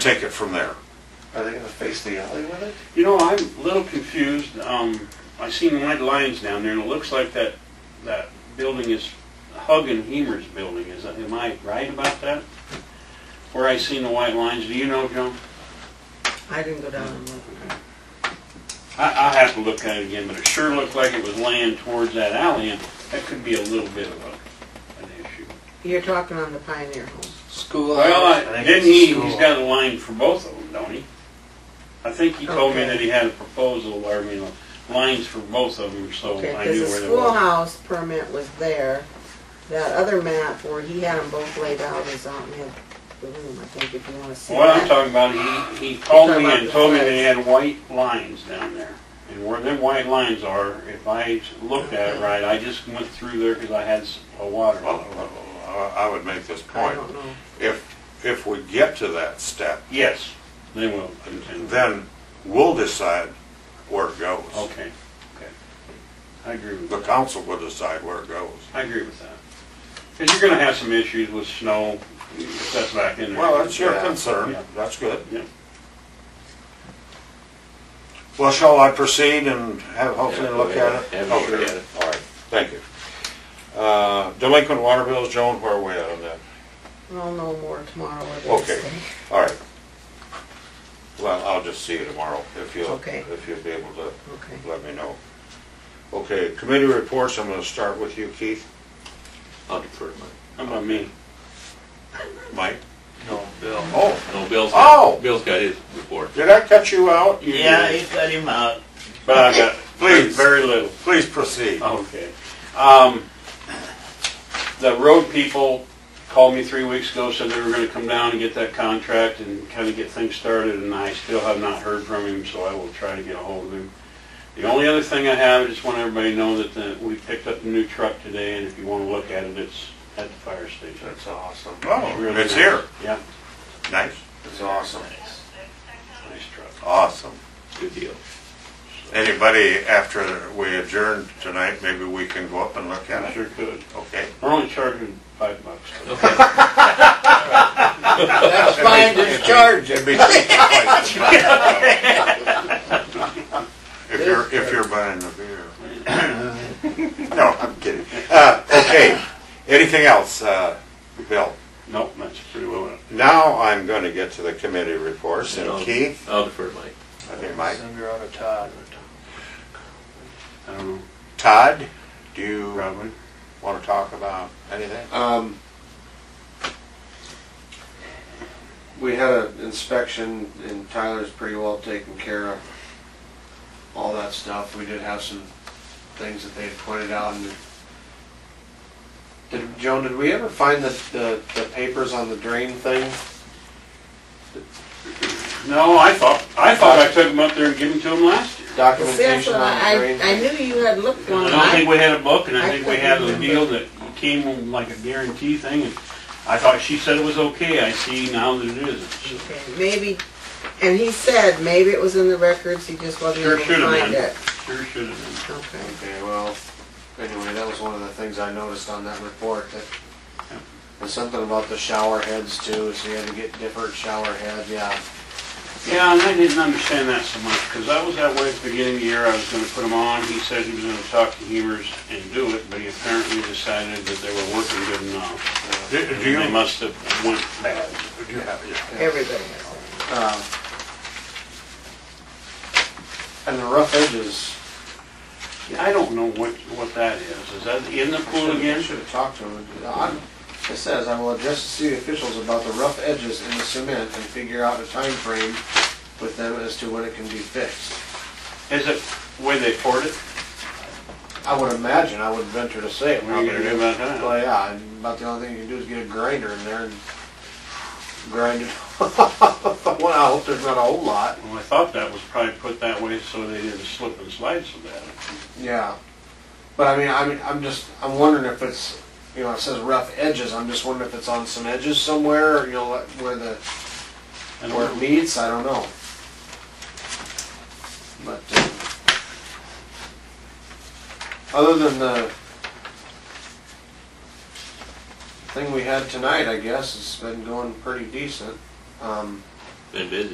take it from there. Are they gonna face the alley with it? You know, I'm a little confused. Um, I seen white lines down there, and it looks like that, that building is Hug and Hemer's building. Is that, am I right about that? Where I seen the white lines, do you know, Joan? I didn't go down and look. I, I have to look at it again, but it sure looked like it was laying towards that alley, and that could be a little bit of a, an issue. You're talking on the Pioneer Home. School hours. Well, I I- think didn't it's he, school. he's got a line for both of them, don't he? I think he told me Okay. that he had a proposal, or, you know, lines for both of them, so Okay, Oh, I because knew the where they were. schoolhouse permit was there. That other map where he had them both laid out is out in his- the room, I think, if you want to see What I'm that. talking about, he, he called talking me about and the told me that he flags. had white lines down there. And where them white lines are, if I looked at it right, I just went through there because I had s- a water. Well, I- I would make this I point. don't know. If, if we get to that step, Yes, they will. continue. then we'll decide where it goes. Okay, okay. I agree with The that. council will decide where it goes. I agree with that. Because you're gonna have some issues with snow, if that's back in there. Well, that's your Yeah. concern. Yeah. That's good. Yeah. Well, shall I proceed and have Hoagland look at it? Yeah, have a Okay. look at it. All right, thank you. Uh, Delinquent water bills, Joan, where are we at on that? I'll know more tomorrow or the next Okay, day. all right. Well, I'll just see you tomorrow if you'll, Okay. if you'll be able to Okay. let me know. Okay, committee reports, I'm gonna start with you, Keith. I'll defer to mine. How about me? Mike? No, Bill. Oh, No, Bill's Oh! got, Bill's got his report. did I cut you out? Yeah, he cut him out. But I got Please. very little. Please proceed. Okay. Um, the road people called me three weeks ago, said they were gonna come down and get that contract and kinda get things started, and I still have not heard from him, so I will try to get a hold of him. The only other thing I have, I just want everybody to know that the, we picked up a new truck today, and if you wanna look at it, it's at the fire station. That's awesome. Oh, it's here. Yeah, Nice. That's awesome. nice truck. Awesome. Good deal. Anybody after we adjourn tonight, maybe we can go up and look I at it? sure could. Okay. We're only charging five bucks. That's fine, just charge him. It'd be twice as much. If you're, if you're buying the beer. No, I'm kidding. Uh, okay, anything else, uh, Bill? Nope, that's pretty well enough. Now I'm gonna get to the committee reports And I'll- and Keith, I'll defer to Mike. I think Mike, Send her out of Todd. I don't know, Todd, do you probably. wanna talk about anything? Um, we had an inspection and Tyler's pretty well taken care of. All that stuff. We did have some things that they had pointed out and did, Joan, did we ever find the, the, the papers on the drain thing? No, I thought, I thought I took them up there and gave them to them last year. Well, See, that's Documentation what on the I, drain? I knew you had looked one. I don't think we had a book, and I I think we had a couldn't deal that came like a guarantee thing, and I thought she said it was okay, I see now that it isn't. Okay, Maybe, and he said maybe it was in the records, he just wasn't Sure able to should've find been. Sure it. should have Okay. Okay, well, anyway, that was one of the things I noticed on that report, that there's something about the shower heads too, so you had to get different shower heads, yeah. been. Yeah, and I didn't understand that so much, because I was that way at the beginning of the year, I was gonna put them on, he said he was gonna talk to Hemers and do it, but he apparently decided that they were working good enough. Do do you, They must have went bad. do you have, yeah. Everybody has it. Uh, And the rough edges, I don't know what, what that is, is that in the pool I again? should have talked to him. I'm- It says, I will address the city officials about the rough edges in the cement and figure out a time frame with them as to when it can be fixed. Is it where they poured it? I would imagine, I would venture to say it. What are you gonna do about that? Well, yeah, and about the only thing you can do is get a grinder in there and grind it. well, I hope there's not a whole lot. Well, I thought that was probably put that way so they didn't slip and slide so bad. Yeah, but I mean, I'm, I'm just, I'm wondering if it's, you know, it says rough edges. I'm just wondering if it's on some edges somewhere, or, you know, like where the And where it meets. I don't know. But uh, other than the thing we had tonight, I guess it's been going pretty decent. Um, been busy.